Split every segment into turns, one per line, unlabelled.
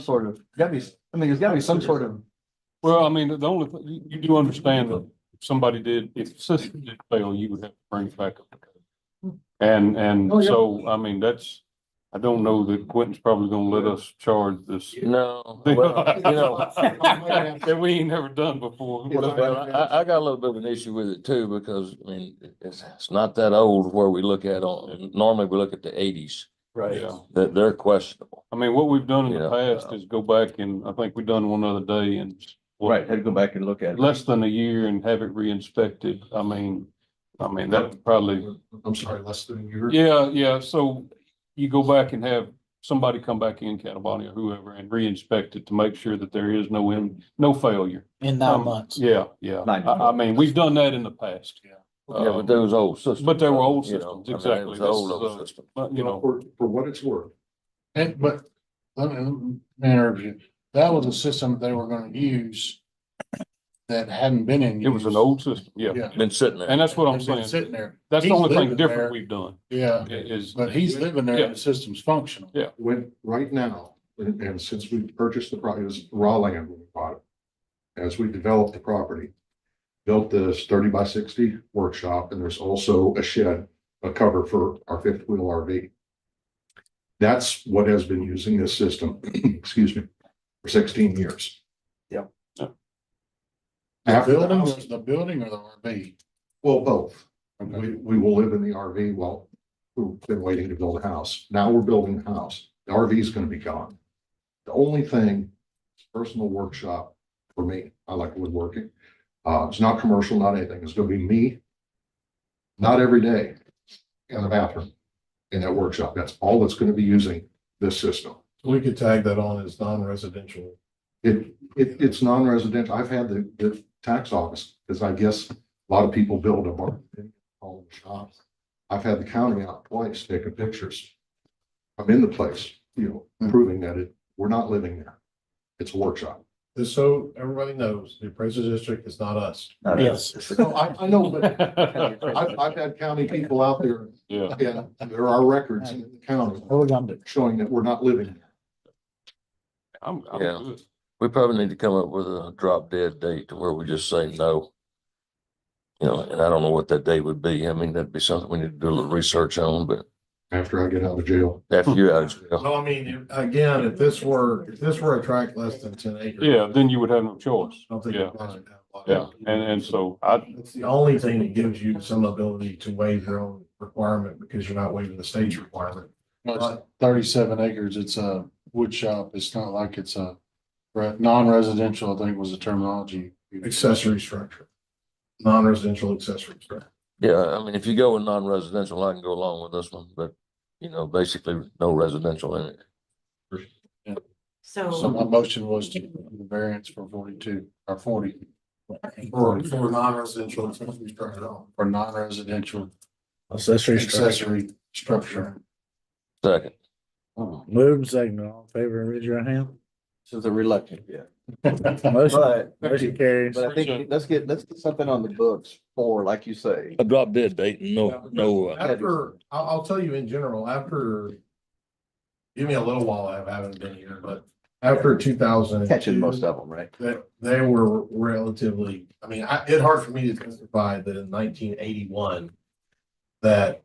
sort of, gotta be, I mean, there's gotta be some sort of,
Well, I mean, the only, thing- you- you do understand that if somebody did, if the system did fail, you would have to bring it back up. And, and
Oh, yeah.
so, I mean, that's, I don't know that Quentin's probably gonna let us charge this.
No,
thing.
well, Uh, you know,
That we ain't never done before.
well, I, I got a little bit of an issue with it too, because, I mean, it's, it's not that old where we look at on, normally we look at the eighties,
right?
Yeah.
that they're questionable.
I mean, what we've done in the
Yeah.
past is go back and, I think we done one other day and
Right, had to go back and look at it.
less than a year and have it re-inspected. I mean, I mean, that would probably
I'm sorry, less than a year.
Yeah, yeah, so you go back and have somebody come back in, Cataboni or whoever, and re-inspect it to make sure that there is no, in- no failure. Um,
in nine months.
Yeah, yeah.
Nine
I, I mean, we've done that in the past.
Yeah, Uh, but those old systems.
but they were old
you know,
systems,
I mean, it
exactly.
was
This
Old,
is
old
a-
system.
But, you know,
For, for what it's worth.
And, but, let me, let me interrupt you. That was a system that they were gonna use that hadn't been in.
it was an
use.
old system, yeah.
Yeah.
Been sitting there.
And that's what I'm
It's been
saying.
Sitting there.
That's the
He's
only thing
living
different
there.
we've done
Yeah,
is.
but he's living there
Yeah.
and the system's functional.
When, right now, and, and since we purchased the property, it was raw land when we bought it. As we developed the property, built this thirty by sixty workshop, and there's also a shed, a cover for our fifth wheel RV. That's what has been using this system, excuse me, for sixteen years.
Yep.
Yep.
The
After the
building,
house,
was the building or the RV?
well, both. We, we will live in the RV while we've been waiting to build a house. Now we're building a house. The RV is gonna be gone. The only thing, personal workshop for me, I like woodworking. Uh, it's not commercial, not anything. It's gonna be me. Not every day in the bathroom, in that workshop. That's all that's gonna be using this system.
We could tag that on as non-residential.
It, it, it's non-residential. I've had the, the tax office, because I guess a lot of people build a barn, all the shops. I've had the county out twice taking pictures. I'm in the place, you know, proving that it, we're not living there. It's a workshop.
Just so everybody knows, the appraisal district is not us.
No, no,
Yes.
it's the-
No, I, I know, but
Yeah.
I've, I've had county people out there, and there are records in the county
What we gonna do?
showing that we're not living there.
I'm, I'm
Yeah.
good.
We probably need to come up with a drop dead date to where we just say no. You know, and I don't know what that date would be. I mean, that'd be something we need to do a little research on, but
After I get out of jail,
after you're out. of jail.
No, I mean, if- again, if this were, if this were a tract less than ten acres.
Yeah, then you would have no
I
choice.
don't think.
Yeah.
you guys would have a lot
Yeah,
of-
and, and so I,
It's the only thing that gives you some ability to waive your own requirement because you're not waiving the state's requirement.
Well, it's Thirty-seven acres, it's a wood shop, it's not like it's a, re- non-residential, I think was the terminology.
Accessory structure. Non-residential accessory structure.
Yeah, I mean, if you go with non-residential, I can go along with this one, but you know, basically no residential in it.
So
So,
my motion was to approve the variance for forty-two or forty.
Or for non-residential accessory structure. only.
For non-residential
Accessory structure.
accessory structure.
Second,
Move and second, all in favor, raise your hand.
This is a reluctant, yeah.
Motion,
But,
motion carries.
but I think, let's get, let's get something on the books for, like you say.
a drop dead date, no, no. uh,
After, I'll, I'll tell you in general, after. Give me a little while, I haven't been here, but after two thousand.
Catching most of them, right?
That they were relatively, I mean, I, it's hard for me to testify that in nineteen eighty-one. That,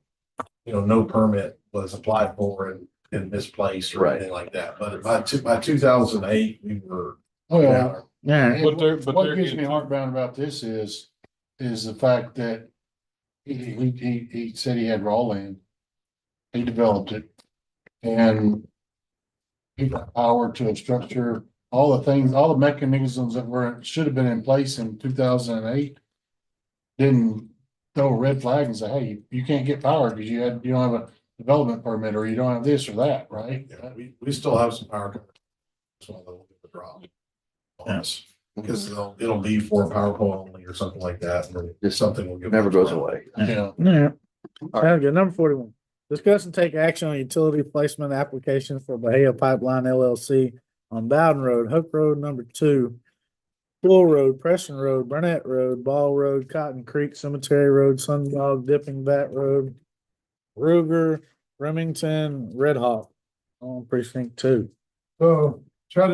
you know, no permit was applied for in, in this place or
Right.
anything like that, but by two, by two thousand eight, we were.
Oh, yeah.
Yeah,
But there-
And
but
What
there
gives
is-
me heartburn about this is, is the fact that he, he, he, he said he had raw land. He developed it and he got power to a structure, all the things, all the mechanisms that were, should have been in place in two thousand and eight. Didn't throw a red flag and say, hey, you- you can't get power because you had, you don't have a development permit or you don't have this or that, right?
Yeah, we, we still have some power. It's one of the the drop. Yes. Because it'll, it'll be for PowerPoint only or something like that, and then something will
It
get.
never goes away.
Yeah.
yeah. Sounds good. Number forty-one, discuss and take action on utility placement application for Bahia Pipeline LLC on Bowden Road, Hook Road number two, Bull Road, Preston Road, Burnett Road, Ball Road, Cotton Creek Cemetery Road, Sundog, Dipping Bat Road, Ruger, Remington, Red Hawk on precinct two.
So
try to